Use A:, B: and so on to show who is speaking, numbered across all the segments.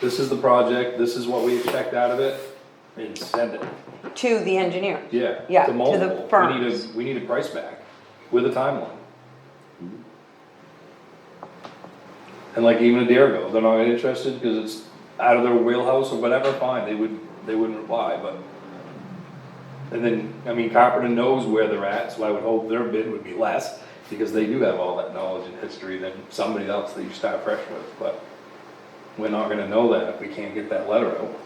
A: this is the project, this is what we expect out of it, and send it,
B: to the engineer.
A: yeah.
B: Yeah, to the
A: multiple. We need
B: firms.
A: a, we need a price back with a timeline. And like even a Deerville, they're not interested, cause it's out of their wheelhouse or whatever, fine, they would, they wouldn't reply, but. And then, I mean, Carpenter knows where they're at, so I would hope their bid would be less, because they do have all that knowledge and history than somebody else that you start fresh with, but. We're not gonna know that if we can't get that letter out.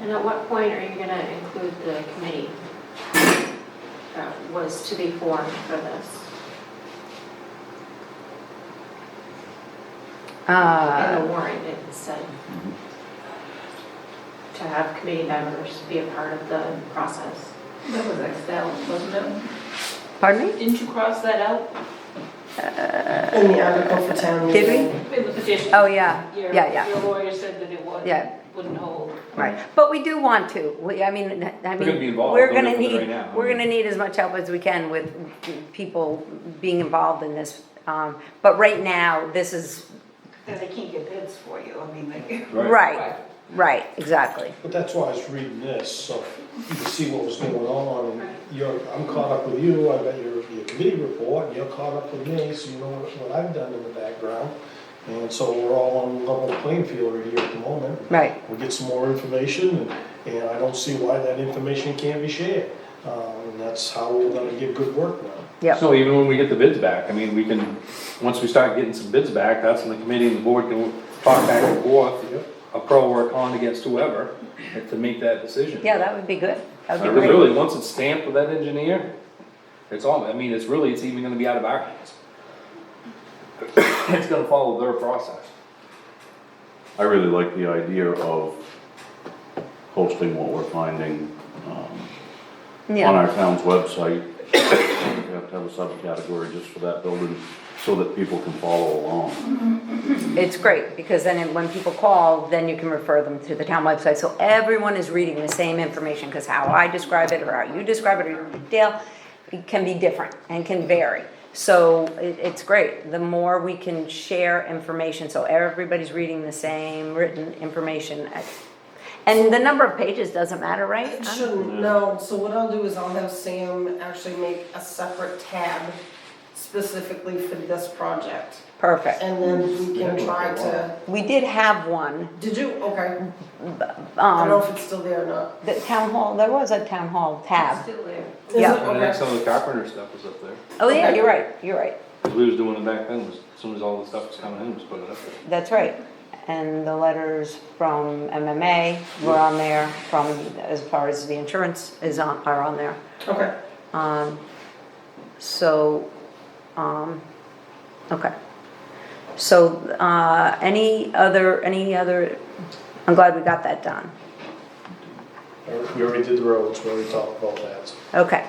C: And at what point are you gonna include the committee that was to be formed for this? In the
B: Uh,
C: warrant, it said to have committee members be a part of the process.
D: That was Xed out, wasn't it?
B: pardon me?
D: Didn't you cross that out?
E: In the article for town
B: Did
E: meeting.
D: In the petition?
B: Oh, yeah,
D: Your-
B: yeah, yeah,
D: Your lawyer said that it would
B: Yeah.
D: Wouldn't hold.
B: right. But we do want to, we, I mean, I
A: gonna be
B: mean,
A: involved,
B: we're
A: don't
B: gonna
A: do it right
B: need,
A: now.
B: we're gonna need as much help as we can with people being involved in this. Um, but right now, this is,
D: Because they can't get bids for you, I mean, they.
B: right, right, exactly.
F: But that's why I was reading this, so you could see what was going on, and you're, I'm caught up with you, I got your, your committee report, and you're caught up with me, so you know what what I've done in the background. And so we're all on level playing field right here at the moment.
B: Right.
F: We'll get some more information, and, and I don't see why that information can't be shared. Um, and that's how we're gonna get good work now.
B: Yep,
A: So even when we get the bids back, I mean, we can, once we start getting some bids back, that's when the committee and the board can talk back and forth, a pro or a con against whoever, and to make that decision.
B: yeah, that would be good. That
A: I
B: would be great.
A: Really, once it's stamped with that engineer, it's all, I mean, it's really, it's even gonna be out of our hands. It's gonna follow their process.
G: I really like the idea of posting what we're finding um, on
B: Yeah,
G: our town's website. We have to have a subcategory just for that building, so that people can follow along.
B: it's great, because then it- when people call, then you can refer them to the town website, so everyone is reading the same information, because how I describe it, or how you describe it, or Dale, it can be different and can vary. So it, it's great, the more we can share information, so everybody's reading the same written information. I- And the number of pages doesn't matter, right?
E: It shouldn't, no, so what I'll do is I'll have Sam actually make a separate tab specifically for this project.
B: Perfect.
E: And then we can try to,
B: We did have one,
E: did you, okay, I don't
B: um,
E: know if it's still there or not.
B: the town hall, there was a town hall tab.
D: Still there.
E: Is it?
B: Yeah.
A: And then
E: Okay.
A: some of the carpenter stuff was up there,
B: Oh, yeah, you're right, you're right.
A: 'Cause we was doing it back then, was, as soon as all the stuff was coming in, was putting it up there.
B: That's right. And the letters from MMA were on there, from, as far as the insurance is on, are on there.
E: Okay,
B: Um, so, um, okay. So, uh, any other, any other, I'm glad we got that done.
F: We already did the roads, we already talked about that, so.
B: Okay.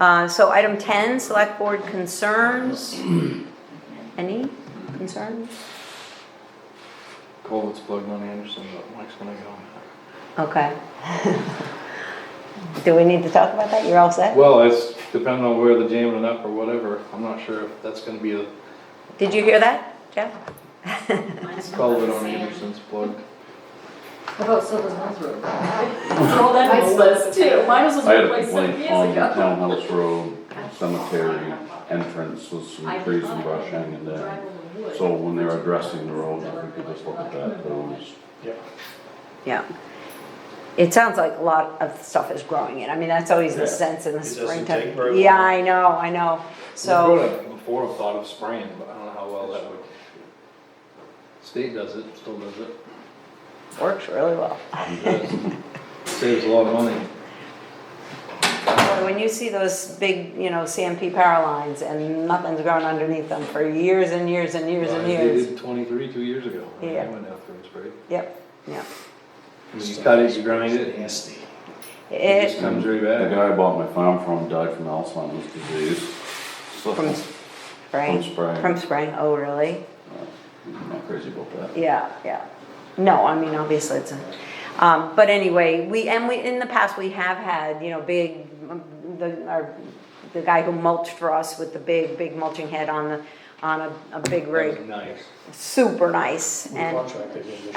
B: Uh, so item ten, select board concerns. Any concerns?
A: Culvert's plugged on Anderson, but Mike's gonna go.
B: Okay. Do we need to talk about that? You're all set?
A: Well, it's depending on where they're jamming it up or whatever, I'm not sure if that's gonna be a
B: Did you hear that, Jeff?
C: Mine's not
A: culvert on
C: saying-
A: Anderson's plug.
D: How about Silver's Mills Road?
C: Oh, that's my list too. Mine was
G: I had a
C: replaced seven
G: complaint
C: years
G: on
C: ago.
G: Townhouse Road Cemetery entrance, with some trees and brush hanging there. So when they're addressing the road, if we could just look at that, those.
B: Yeah. It sounds like a lot of stuff is growing in. I mean, that's always the
G: Yeah.
B: sense in the
F: It doesn't
B: springtime.
F: take very long.
B: Yeah, I know, I know.
A: We've
B: So,
A: brought up Before, I've thought of spraying, but I don't know how well that would. State does it, still does it.
B: works really well.
A: Saves a lot of money.
B: Boy, When you see those big, you know, CMP power lines and nothing's growing underneath them for years and years and years and
A: They
B: years.
A: did Twenty-three, two years ago. I mean, I
B: Yeah.
A: went out there and sprayed.
B: Yep, yep.
A: You cut it, you grind it, and
F: Nasty.
A: it just
B: It,
A: comes right
G: The
A: back.
G: guy I bought my farm from died from Alzheimer's disease. So,
B: From- spring.
G: From spring.
B: From spring, oh, really?
G: I'm not crazy about that.
B: Yeah, yeah. No, I mean, obviously it's a, um, but anyway, we, and we, in the past, we have had, you know, big, um, the, our, the guy who mulched for us with the big, big mulching head on the, on a, a big
A: That was
B: rig,
A: Nice.
B: super nice
F: We
B: and.
F: contracted him this